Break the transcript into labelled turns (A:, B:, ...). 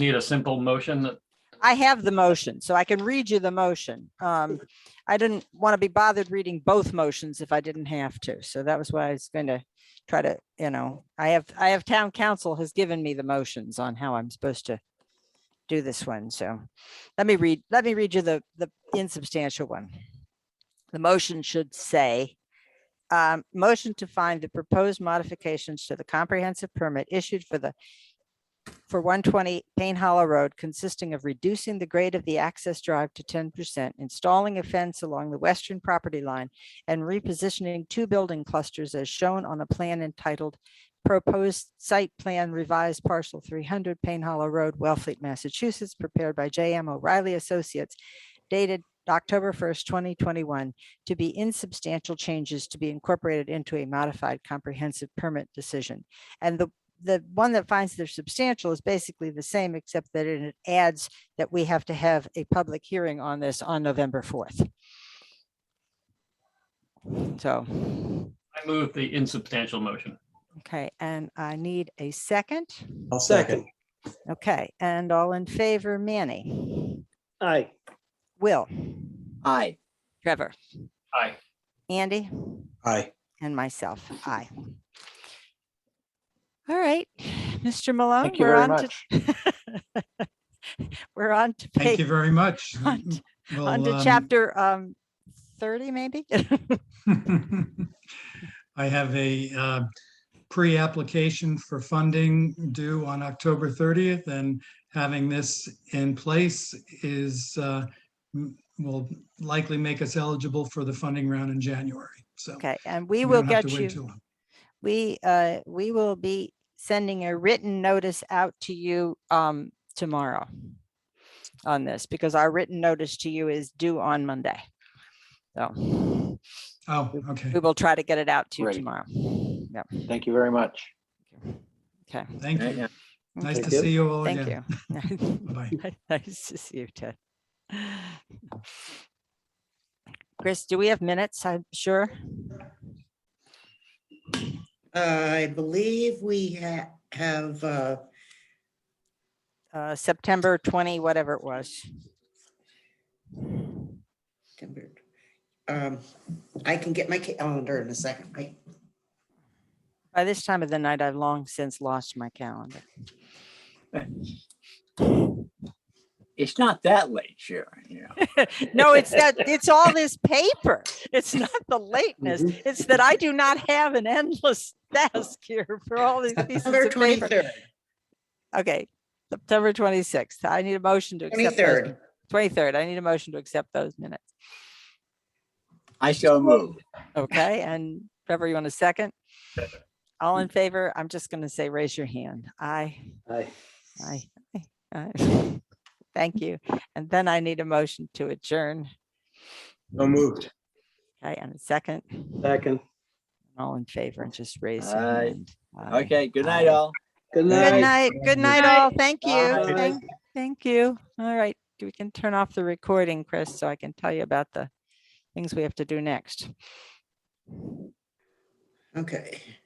A: need a simple motion that
B: I have the motion, so I can read you the motion. Um, I didn't want to be bothered reading both motions if I didn't have to. So that was why I was going to try to, you know, I have, I have town council has given me the motions on how I'm supposed to do this one. So let me read, let me read you the, the insubstantial one. The motion should say, um, motion to find the proposed modifications to the comprehensive permit issued for the for one twenty Payne Hollow Road consisting of reducing the grade of the access drive to ten percent, installing a fence along the western property line, and repositioning two building clusters as shown on a plan entitled Proposed Site Plan Revised Parcel three hundred Payne Hollow Road, Wellfleet, Massachusetts, prepared by J M O'Reilly Associates, dated October first, twenty twenty-one, to be insubstantial changes to be incorporated into a modified comprehensive permit decision. And the the one that finds they're substantial is basically the same, except that it adds that we have to have a public hearing on this on November fourth. So,
A: I move the insubstantial motion.
B: okay, and I need a second.
C: I'll second.
B: Okay, and all in favor, Manny,
D: Aye.
B: Will,
D: Aye.
B: Trevor,
A: Aye.
B: Andy,
C: Aye.
B: and myself. Aye. All right, Mr. Malone.
D: Thank you
B: we're
D: very
B: on to- We're on to
E: Thank
B: page,
E: you very much.
B: on to
E: We'll,
B: On to
E: um,
B: chapter um thirty, maybe?
E: I have a uh, pre-application for funding due on October 30th, and having this in place is, uh, m- will likely make us eligible for the funding round in January, so.
B: Okay, and we
E: we
B: will
E: don't have to
B: get
E: wait
B: you,
E: too long.
B: we uh, we will be sending a written notice out to you um tomorrow on this, because our written notice to you is due on Monday. So
E: Oh, okay,
B: we will try to get it out to you
D: Great.
B: tomorrow. Yep.
D: Thank you very much.
B: Okay.
E: thank you. Nice
B: okay,
E: to
D: Thank you.
E: see you all
B: Thank
E: again.
B: you.
E: Bye.
B: Nice to see you, Ted. Chris, do we have minutes? I'm sure.
F: I believe we ha- have, uh,
B: Uh, September twenty, whatever it was.
F: September. Um, I can get my calendar in a second. I-
B: By this time of the night, I've long since lost my calendar.
D: It's not that late, Sharon, you know.
B: No, it's that, it's all this paper. It's not the lateness.
F: Mm-hmm.
B: It's that I do not have an endless task here for all these pieces of
F: September
B: paper.
F: twenty-third,
B: Okay, September twenty-sixth. I need a motion to accept those.
F: twenty-third.
B: Twenty-third. I need a motion to accept those minutes.
D: I so move.
B: Okay, and Trevor, you want a second? All in favor? I'm just going to say, raise your hand. Aye.
D: Aye.
B: Aye. aye, aye. Thank you. And then I need a motion to adjourn.
C: No moved.
B: Okay, and a second,
G: Second.
B: all in favor and just raise. your
D: Aye.
B: hand. Aye.
D: Okay, good night, all.
G: Good
B: Good
G: night.
B: night, good night
H: night.
B: all. Thank you.
D: Bye.
B: Thank- Thank you. All right, we can turn off the recording, Chris, so I can tell you about the things we have to do next.
F: Okay.